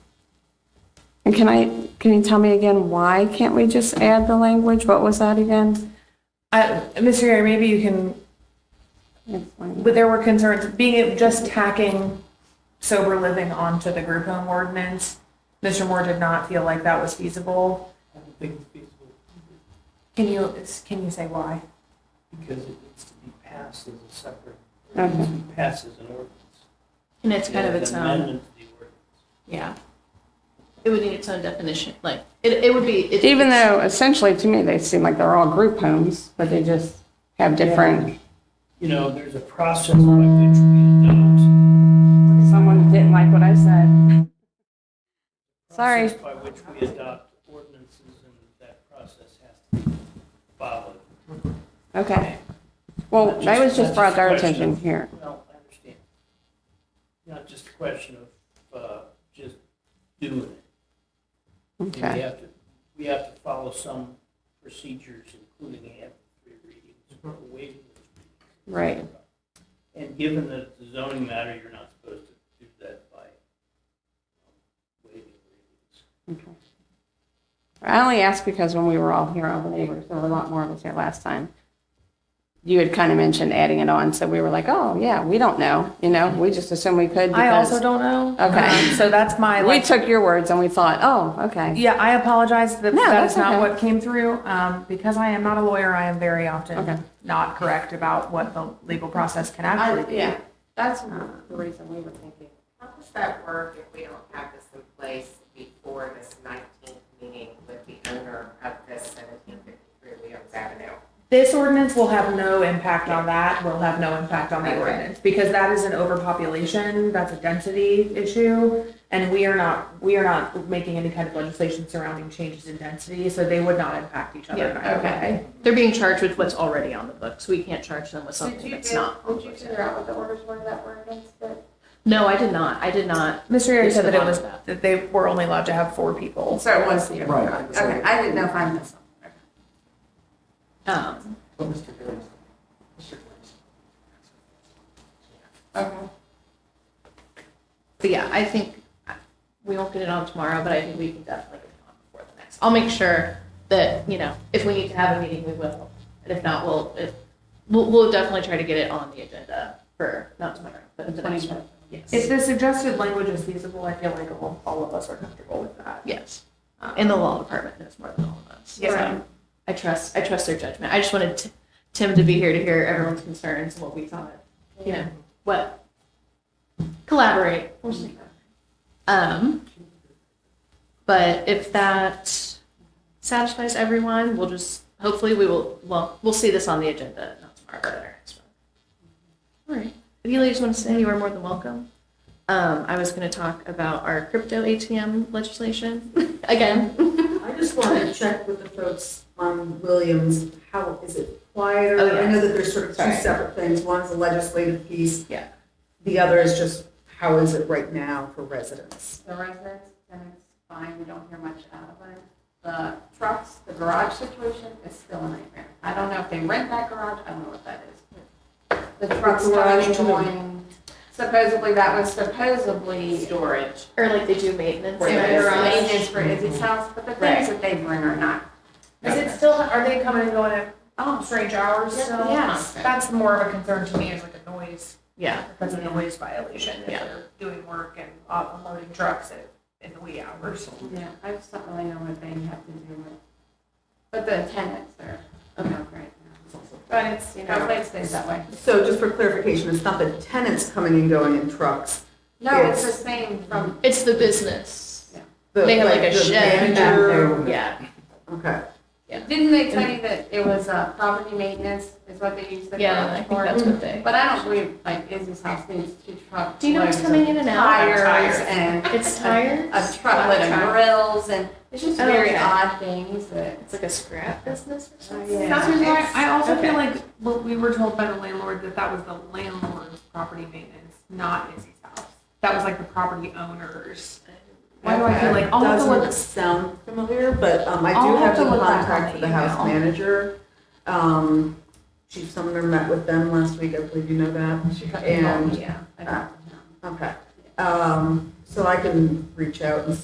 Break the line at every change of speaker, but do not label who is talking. And can I, can you tell me again, why can't we just add the language? What was that again?
Uh, Mr. Gary, maybe you can, but there were concerns, being it just tacking sober living onto the group home ordinance, Mr. Moore did not feel like that was feasible.
I don't think it's feasible
Can you, can you say why?
because it needs to be passed as a separate, it
Okay.
needs to be passed as an ordinance.
And Uh-huh. it's kind of its
An
own,
amendment to the ordinance.
yeah. It would need its own definition, like, it, it would be. it-
Even
it's-
though essentially to me, they seem like they're all group homes, but they just have different.
You know, there's a process by which we adopt.
Someone didn't like what I said. Sorry.
process By which we adopt ordinances and that process has to be followed.
Okay. Well, that was just brought to our attention here.
Well, I understand. Not just a question of uh, just doing it. We
Okay.
have to, we have to follow some procedures, including having three readings or waiving those
Right.
And given that it's a zoning matter, you're not supposed to do that by um, waiving readings.
I only asked because when we were all here, all the neighbors, there were a lot more of us here last time. You had kind of mentioned adding it on, so we were like, oh, yeah, we don't know, you know, we just assumed we could
I also
because
don't know.
Okay.
Um, So that's my,
we
like,
took your words and we thought, oh, okay,
yeah, I apologize that
No,
that
that's
is not
okay.
what came through. Um, Because I am not a lawyer, I am very
Okay.
often not correct about what the legal process can
I,
actually be.
yeah, that's the reason we were thinking.
How does that work if we don't have this in place before this nineteenth meeting with the owner of this seventeen fifty-three Williams Avenue?
This ordinance will have no impact on that, will have no impact on the ordinance, because that is an overpopulation, that's a density issue. And we are not, we are not making any kind of legislation surrounding changes in density, so they would not impact each other. in
Yeah,
either way.
okay. They're being charged with what's already on the books. We can't charge them with something that's not. on the books.
out what the orders were that were against it?
No, I did not. I did not.
Mr. Yeri
It's
said
the
that it
bottom
was,
of that.
that they were only allowed to have four people.
So it was the.
Right.
Okay, I didn't know if I missed.
Um,
But Mr. Graves, Mr. Graves.
Okay.
but yeah, I think we won't get it on tomorrow, but I think we can definitely get it on before the next. I'll make sure that, you know, if we need to have a meeting, we will. And if not, we'll, if, we'll, we'll definitely try to get it on the agenda for, not tomorrow, but the next one.
If
Yes,
the suggested language is feasible, I feel like all all of us are comfortable with that.
yes. And the law department knows more than all of us. so.
Yeah.
I trust, I trust their judgment. I just wanted Ti- Tim to be here to hear everyone's concerns and what we thought, you know, what, collaborate. We'll see. Um, but if that satisfies everyone, we'll just, hopefully we will, well, we'll see this on the agenda, not tomorrow, but our next one. All right. If you ladies want to stay, you are more than welcome. Um, I was going to talk about our crypto ATM legislation again.
I just want to check with the folks on Williams, how, is it quieter?
Oh, yeah.
I know that there's sort of two
Sorry.
separate things, one's a legislative piece.
Yeah.
The other is just, how is it right now for residents?
The residents, then it's fine, we don't hear much out of it. The trucks, the garage situation is still a nightmare. I don't know if they rent that garage, I don't know what that is. The trucks
garage
not
to the-
going, supposedly that was supposedly. Storage.
Or like they do maintenance.
For
areas.
maintenance for Izzy's house, but the things that they bring are not.
Is it still, are they coming and going at
Oh,
strange hours
Yeah,
still?
yes.
That's more of a concern to me is like a noise,
Yeah,
that's a noise violation if
Yeah.
they're doing work and uh, unloading trucks at, in the wee hours.
yeah, I just don't really know what they have to do with, but the tenants are, okay, right now. But it's, you know, hopefully it stays that way.
So just for clarification, it's not the tenants coming and going in trucks.
No, it's the same from,
it's the business.
the-
They have like a
the
shed back
manager-
Yeah,
Okay,
didn't they tell you that it was uh, property maintenance is what they use the
yeah, I
garage
think
for?
that's what they.
But I don't believe, like, Izzy's house needs two trucks.
Do you know what's coming in and out?
Tires and
It's
a
tires.
truckload of grills and it's just
Oh,
very
okay.
odd things that.
It's like a scrap business or something.
Yeah.
That's the reason why I also
Okay.
feel like, what we were told by the landlord that that was the landlord's property maintenance, not Izzy's house. That was like the property owner's. Why do I feel like, I'll have to
doesn't
look-
sound familiar, but um, I
I'll
do
have
have
to
the
look back
contact
on
for
the
the house
email.
manager. Um, Chief Sumner met with them last week, I believe you know that. And uh,
Yeah. I don't know.
Okay, um, so I can reach out and